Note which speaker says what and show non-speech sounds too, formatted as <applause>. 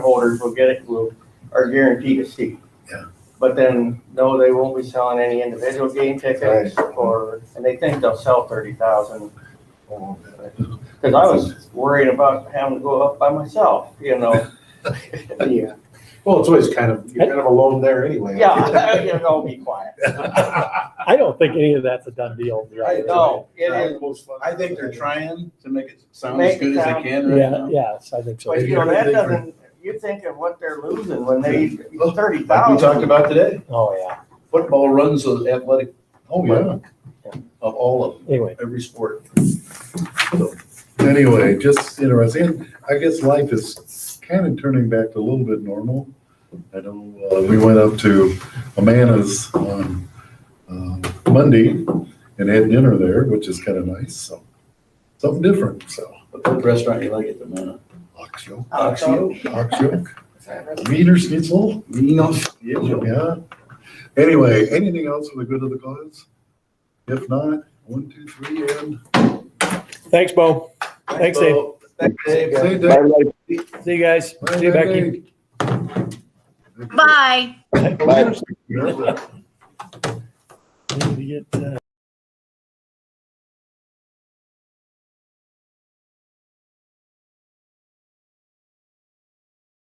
Speaker 1: holders will get it, will, are guaranteed a seat.
Speaker 2: Yeah.
Speaker 1: But then, no, they won't be selling any individual game tickets or, and they think they'll sell thirty thousand. Cause I was worried about having to go up by myself, you
Speaker 3: <laughs>
Speaker 1: know? Yeah,
Speaker 2: Well, it's always kind of, you're kind of alone there anyway. <laughs>
Speaker 1: yeah, you know, be quiet.
Speaker 4: I don't think any of that's a done deal.
Speaker 1: I know, it is,
Speaker 3: I think they're trying to make it sound
Speaker 1: Make
Speaker 3: as
Speaker 1: it
Speaker 3: good as
Speaker 1: sound-
Speaker 3: they can right
Speaker 4: Yeah,
Speaker 3: now.
Speaker 4: yes, I think so.
Speaker 1: but you know, that doesn't, you think of what they're losing when they, thirty
Speaker 3: Like we talked
Speaker 1: thousand.
Speaker 3: about today,
Speaker 4: Oh, yeah.
Speaker 3: football runs the athletic
Speaker 2: Oh, yeah.
Speaker 3: of all of,
Speaker 4: Anyway,
Speaker 3: every sport.
Speaker 2: Anyway, just interesting. And I guess life is kind of turning back to a little bit normal. I know, uh, we went up to Amana's on, um, Monday and had dinner there, which is kind of nice, so. Something different, so.
Speaker 3: But what restaurant you like at the moment?
Speaker 2: Ox yoke,
Speaker 3: Ox yoke.
Speaker 2: ox yoke, meter schnitzel,
Speaker 3: You know, yeah.
Speaker 2: yeah. Anyway, anything else for the good of the cause? If not, one, two, three, and.
Speaker 4: thanks, Bo. Thanks, Dave.
Speaker 3: Dave.
Speaker 2: Say Dave.
Speaker 4: See you guys. See you, Becky.
Speaker 5: Bye.
Speaker 2: Bye.
Speaker 4: Need to get, uh,